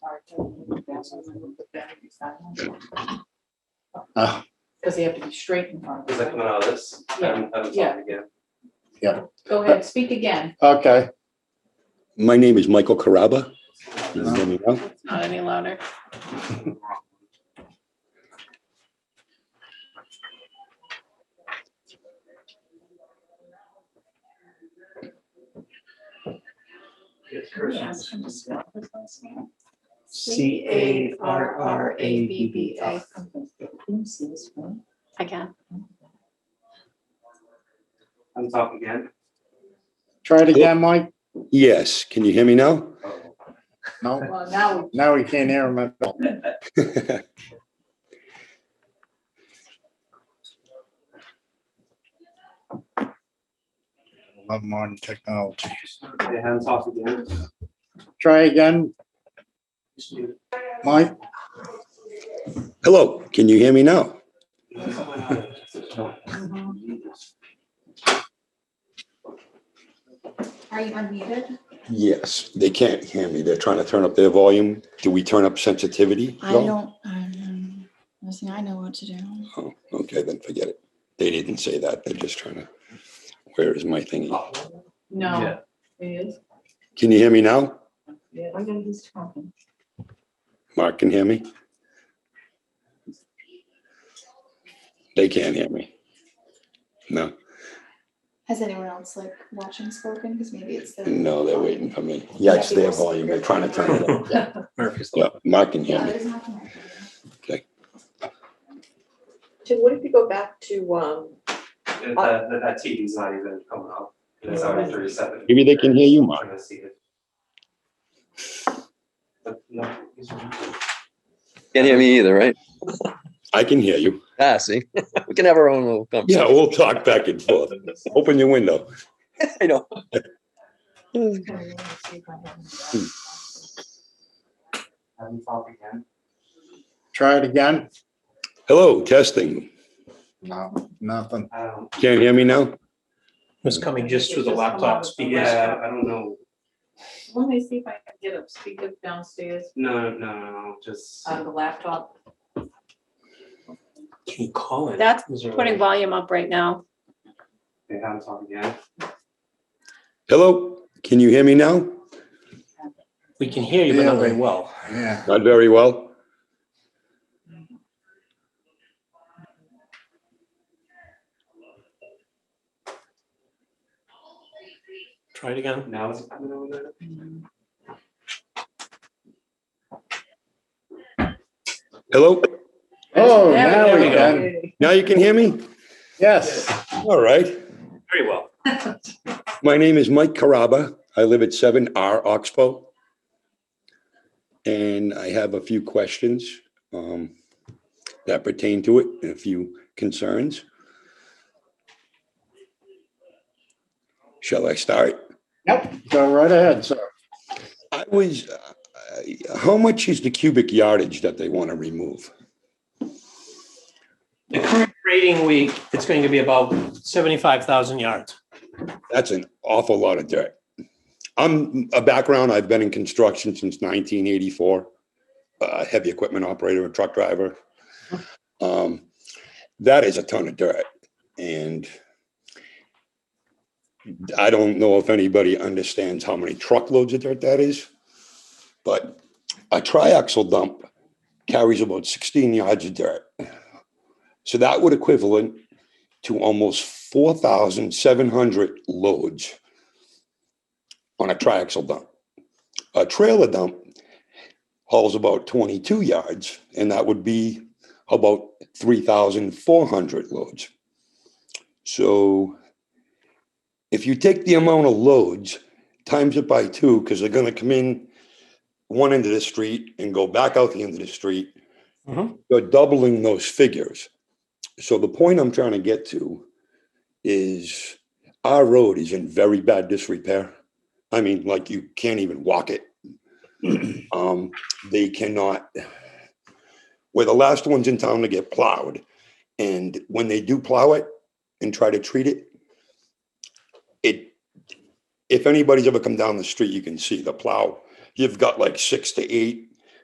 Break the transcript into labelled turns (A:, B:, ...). A: Oh.
B: Because they have to be straight in front of
C: Is that
B: us.
C: coming out of this? I haven't- I haven't
B: Yeah.
C: talked again.
B: Go ahead, speak again.
A: Okay,
D: My name is Michael Caraba. Can you hear me now?
B: It's Not any louder.
E: C A R R A B B A.
F: Again,
C: I'm talking again.
A: try it again, Mike.
D: Yes, can you hear me now?
C: Oh,
A: No,
B: Well, now,
A: now we can't hear him at all. Love modern technology.
C: Okay, I haven't talked again.
A: Try again,
C: Just mute
A: Mike.
D: Hello, can you hear me now?
B: Mm-hmm.
C: it.
F: are you unmuted?
D: Yes, they can't hear me. They're trying to turn up their volume. Do we turn up sensitivity?
G: I
D: No?
G: don't, I'm, listen, I know what to do.
D: Oh, okay, then forget it. They didn't say that. They're just trying to, where is my thingy?
B: no. It is.
D: Can you hear me now?
B: Yeah.
D: Mark can hear me? They can't hear me. No,
G: Has anyone else like watching spoken? Because maybe it's the.
D: no, they're waiting for me. Yeah, it's their volume. They're trying to turn it up.
E: Murphy's
D: Yeah, Mark can hear
G: Yeah,
D: me.
G: there's not connected.
H: Tim, what if you go back to, um,
C: That, that, that TV's not even coming up. It's already thirty-seven.
D: Maybe they can hear you, Mark.
C: Trying to see it. But no, it's-
I: Can't hear me either, right?
D: I can hear you.
I: Ah, see, we can have our own little
D: Yeah,
I: conversation.
D: we'll talk back and forth. Open your window.
I: I know.
C: I haven't talked again.
A: Try it again.
D: Hello, testing.
A: No, nothing.
C: I don't,
D: Can't hear me now?
E: Was coming just through the
B: It's just come
E: laptop
B: out.
E: speakers.
C: yeah, I don't know.
B: Let me see if I can get up, speak up downstairs
C: No, no, no, no, just.
B: on the laptop.
E: Can you call it?
F: That's
E: Is there a-
F: Putting volume up right now.
C: They haven't talked again.
D: Hello, can you hear me now?
E: We can hear you, but not very
A: Yeah.
E: well.
A: Yeah,
D: Not very well.
E: Try it again.
C: Now it's coming over
D: Hello,
A: oh,
B: There
A: now we can,
B: Yay.
D: now you can hear me?
A: yes.
D: All right.
E: Very well.
D: My name is Mike Caraba. I live at 7R Oxbow. And I have a few questions um, that pertain to it and a few concerns. Shall I start?
A: Yep, go right ahead, sir.
D: I was, uh, how much is the cubic yardage that they want to remove?
E: The current rating week, it's going to be about seventy-five thousand yards.
D: That's an awful lot of dirt. I'm a background, I've been in construction since 1984, a heavy equipment operator, a truck driver. Um, That is a ton of dirt. And I don't know if anybody understands how many truckloads of dirt that is, but a triaxle dump carries about 16 yards of dirt. So that would equivalent to almost 4,700 loads on a triaxle dump. A trailer dump hauls about 22 yards, and that would be about 3,400 loads. So if you take the amount of loads, times it by two, because they're going to come in one end of the street and go back out the end of the street,
E: Mhm.
D: you're doubling those figures. So the point I'm trying to get to is our road is in very bad disrepair. I mean, like you can't even walk it. um, they cannot. We're the last ones in town to get plowed, and when they do plow it and try to treat it, it. If anybody's ever come down the street, you can see the plow. You've got like six to eight